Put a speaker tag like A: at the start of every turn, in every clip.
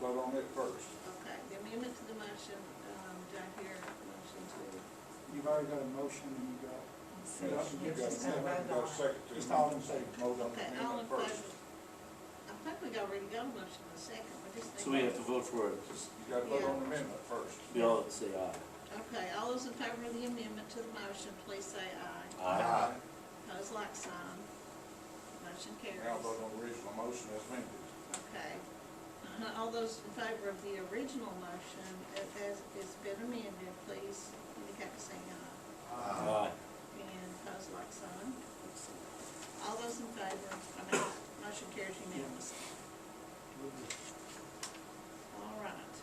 A: on it first.
B: Okay, the amendment to the motion, um, do I hear a motion to?
C: You've already got a motion and you got,
A: You got- you got a minute, you got a second to
C: just all in favor.
A: vote on the
B: Okay, all in
A: amendment
B: favor?
A: first.
B: I think we already got a motion in a second, we just need.
D: So we have to vote for it, just,
A: You gotta vote on the amendment first.
D: we all say aye.
B: Okay, all those in favor of the amendment to the motion, please say aye.
D: Aye.
B: Pose like sign. Motion carries.
A: Now vote on the original motion as amended.
B: Okay. Uh-huh, All those in favor of the original motion a- as it's been amended, please indicate by saying aye.
D: Aye.
B: And pose like sign. All those in favor, I mean, motion carries unanimously. All right.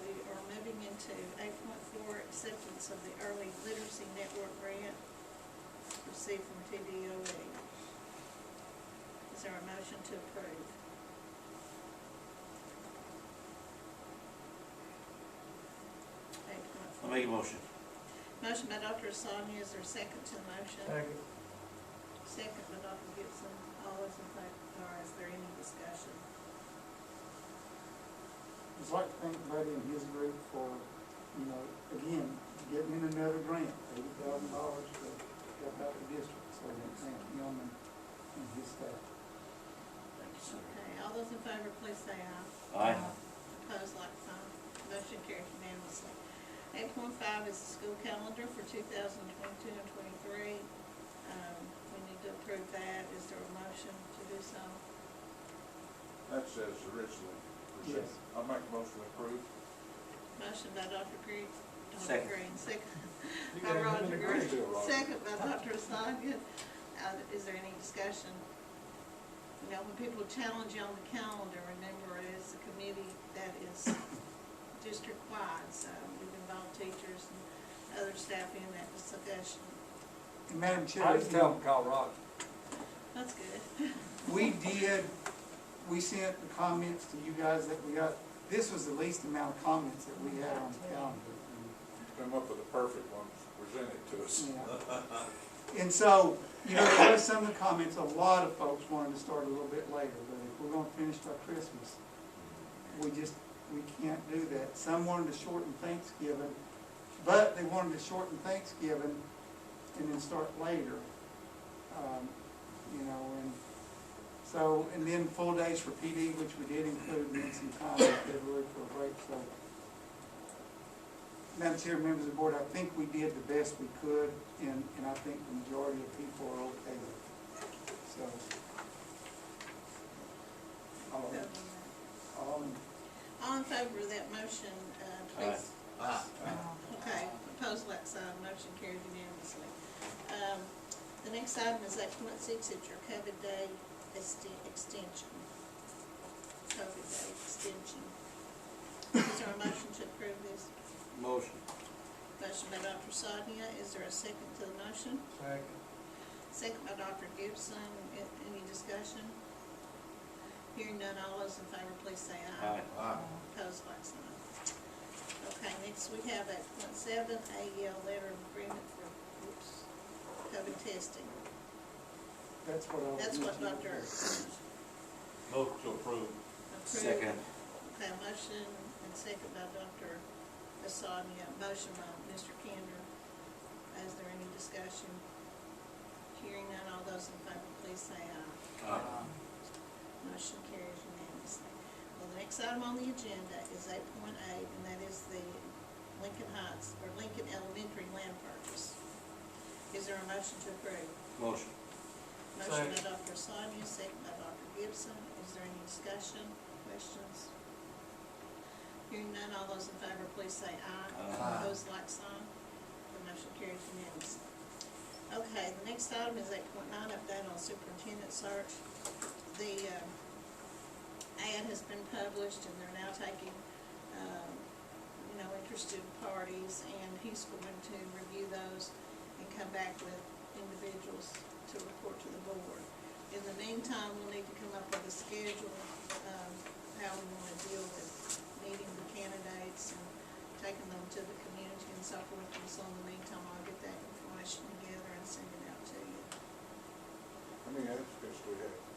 B: We are moving into eight point four, acceptance of the early literacy network grant received from TDOE. Is there a motion to approve? Eight point
D: I
B: four.
D: make a motion.
B: Motion by Dr. Sonia, is there a second to the motion?
E: Second.
B: Second by Dr. Gibson, all those in favor, or is there any discussion?
C: I'd like to thank Buddy and his group for, you know, again, getting in another grant, eighty thousand dollars to help out the district, so we thank him and, and his staff.
D: Thank you, sir.
B: Okay, all those in favor, please say aye.
D: Aye.
B: Opposed, like sign. Motion carries unanimously. Eight point five is the school calendar for two thousand twenty-two and twenty-three. Um, we need to approve that. Is there a motion to do so?
A: That says originally presented.
C: Yes.
A: I make a motion to approve.
B: Motion by Dr. Green. Dr.
D: Second.
B: Green, second.
E: You got
B: by
E: it.
B: Roger Green.
A: Let's do it, Roger.
B: Second by Dr. Sonia. Uh, is there any discussion? You know, when people challenge you on the calendar, remember as a committee that is district-wide, so we've involved teachers and other staff in that discussion.
C: And Madam Chair.
F: I just tell them, call Roger.
B: That's good.
C: We did, we sent the comments to you guys that we got, this was the least amount of comments that we had on the calendar.
A: Come up with a perfect one, present it to us.
C: Yeah. And so, you know, there was some of the comments, a lot of folks wanted to start a little bit later, but if we're gonna finish by Christmas, we just, we can't do that. Some wanted to shorten Thanksgiving, but they wanted to shorten Thanksgiving and then start later. Um, You know, and so, and then full days for PD, which we did include, and then some time in February for a break, so. Madam Chair, members of the board, I think we did the best we could, and, and I think the majority of people are okay with it. So. All, all in
B: All in favor of that motion, uh, please. Okay, opposed, like sign, motion carried unanimously. Um, the next item is eight point six, it's your COVID day ext- extension. COVID day extension. Is there a motion to approve this?
D: Motion.
B: Motion by Dr. Sonia, is there a second to the motion?
E: Second.
B: Second by Dr. Gibson, A- any discussion? Hearing none, all those in favor, please say
D: Aye.
B: Opposed, like sign. Okay, next we have eight point seven, AEL letter of agreement for, oops, COVID testing.
C: That's what I was.
B: That's what
C: mentioning.
B: Dr.
F: Vote to approve.
B: approved.
D: Second.
B: Okay, motion and second by Dr. Bassanio, motion by Mr. Kinder. Is there any discussion? Hearing none, all those in favor, please say aye.
D: Aye.
B: Motion carries unanimously. Well, the next item on the agenda is eight point eight, and that is the Lincoln Heights, or Lincoln Elementary land purchase. Is there a motion to approve?
D: Motion.
B: Motion by Dr. Sonia, second by Dr. Gibson. Is there any discussion, questions? Hearing none, all those in favor, please say aye.
D: Aye.
B: Opposed, like sign. The motion carries unanimously. Okay, the next item is eight point nine, update on superintendent search. The, um, ad has been published and they're now taking, um, you know, interested parties, and he's going to review those and come back with individuals to report to the board. In the meantime, we'll need to come up with a schedule, um, how we wanna deal with meeting the candidates and taking them to the community and so forth, and so in the meantime, I'll get that information together and send it out to you.
A: How many applicants do we have?